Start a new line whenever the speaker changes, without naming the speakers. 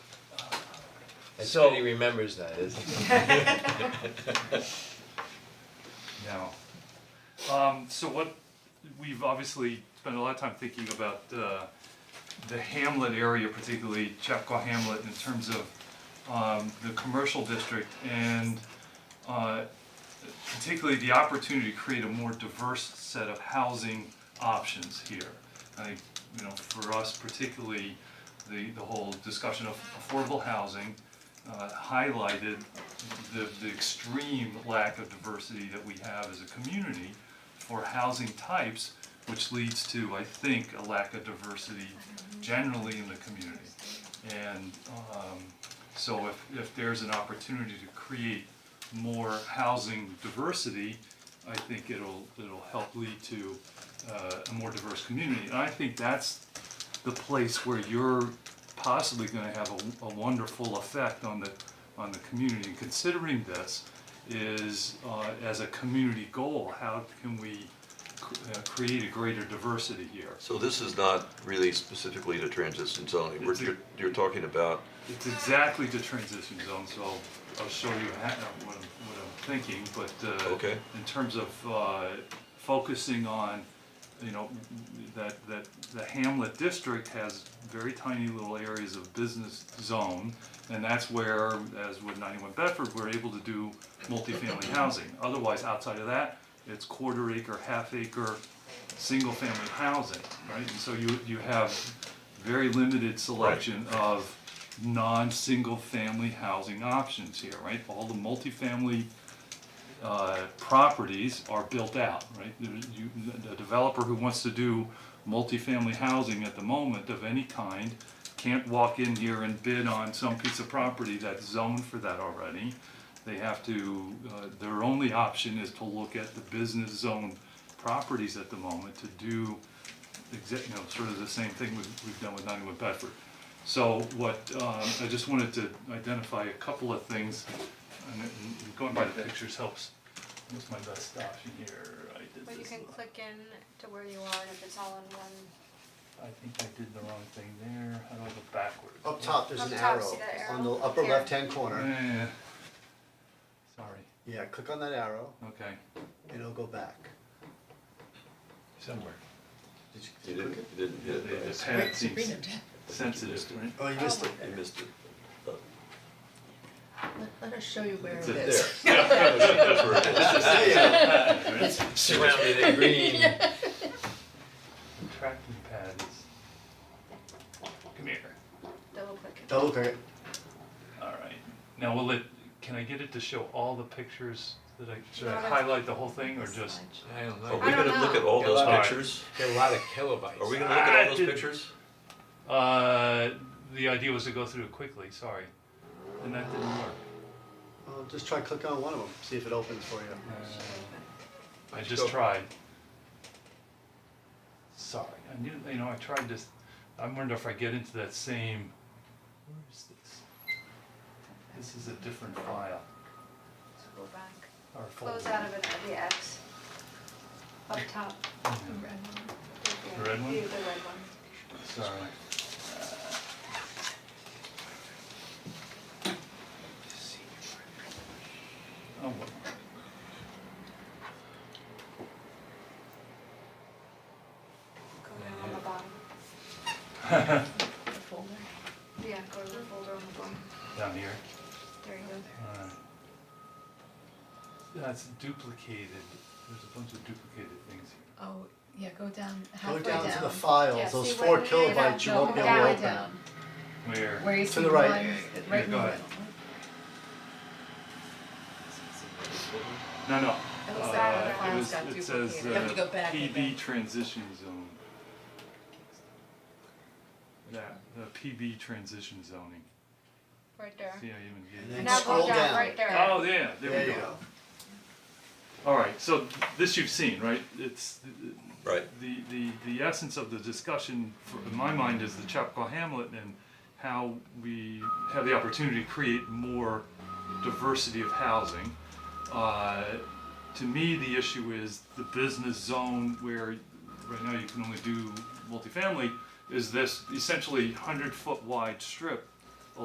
It's
So-
good he remembers that, isn't it?
No.
Um, so what, we've obviously spent a lot of time thinking about, uh, the Hamlet area, particularly Chapco Hamlet, in terms of, um, the commercial district and, uh, particularly the opportunity to create a more diverse set of housing options here. I think, you know, for us particularly, the, the whole discussion of affordable housing, uh, highlighted the, the extreme lack of diversity that we have as a community for housing types, which leads to, I think, a lack of diversity generally in the community. And, um, so if, if there's an opportunity to create more housing diversity, I think it'll, it'll help lead to, uh, a more diverse community. And I think that's the place where you're possibly gonna have a, a wonderful effect on the, on the community. And considering this is, uh, as a community goal, how can we cr- uh, create a greater diversity here?
So this is not really specifically to transition zoning, we're,
It's a-
you're, you're talking about,
It's exactly the transition zone, so I'll, I'll show you ha- uh, what I'm, what I'm thinking, but, uh,
Okay.
in terms of, uh, focusing on, you know, that, that the Hamlet district has very tiny little areas of business zone, and that's where, as with ninety-one Bedford, we're able to do multifamily housing. Otherwise, outside of that, it's quarter acre, half acre, single family housing, right? And so you, you have very limited selection of non-single family housing options here, right? All the multifamily uh, properties are built out, right? There- you- the developer who wants to do multifamily housing at the moment of any kind can't walk in here and bid on some piece of property that's zoned for that already. They have to, uh, their only option is to look at the business zone properties at the moment to do exact, you know, sort of the same thing we've, we've done with ninety-one Bedford. So what, um, I just wanted to identify a couple of things, and and going by the pictures helps. What's my best option here? I did
But you
this,
can click in to where you are and if it's all in one,
I think I did the wrong thing there, how do I go backwards?
Up top, there's
Up
an
top,
arrow,
see that
on the
arrow?
upper
Yeah.
left-hand corner,
Eh, sorry,
yeah, click on that arrow,
okay.
and it'll go back.
Somewhere.
Did you-
you
did you
didn't,
click it?
you didn't
The,
hit it,
the
right?
pad seems sensitive, right?
Oh, you missed it.
you missed it.
Let, let us show you where it
It's
is.
a-
That's where it is.
Surrounded in green.
Tracking pad is. Come here.
double click it.
Double click it,
Alright, now will it, can I get it to show all the pictures that I, should I
No, that's-
highlight the whole thing or just?
I don't
Are
know.
we gonna look at all
know.
those
All right.
pictures?
There are a lot of kilobytes.
Are we gonna look at
I
all those
didn't-
pictures?
Uh, the idea was to go through it quickly, sorry, and that didn't work.
well, just try clicking on one of them, see if it opens for you.
I
Let's
just
go.
tried. Sorry, I knew, you know, I tried this, I wonder if I get into that same, where is this? This is a different file,
So go back,
or folder.
close out of it at the X. Up top.
The red one?
Yeah, the red one.
Sorry. Oh, what?
Go down on the bottom.
The folder.
Yeah, go to the folder on the bottom.
Down here.
There you go.
Alright. That's duplicated. There's a bunch of duplicated things here.
Oh, yeah, go down
Go
halfway down.
down to the
Yeah,
files, those
see
four
where you ended up,
kilobytes you
No,
won't be
halfway
able to open.
down,
Where?
where you
To
see
the
the
right.
line, right
Yeah,
in
go
the
ahead.
middle.
No, no.
It looks like
Uh,
the
it
files
was-
got
It says,
duplicated. You have to
uh,
go back in
PB
there.
transition zone. That, the PB transition zoning.
Right there.
See, I even gave
And
you-
then
Now go
scroll
down,
down.
right there.
Oh, yeah, there we
There you go.
All right, so this you've seen, right? It's
Right.
the the the essence of the discussion, for, in my mind, is the Chapco Hamlet and how we have the opportunity to create more diversity of housing. Uh, to me, the issue is the business zone where right now you can only do multifamily. Is this essentially hundred foot wide strip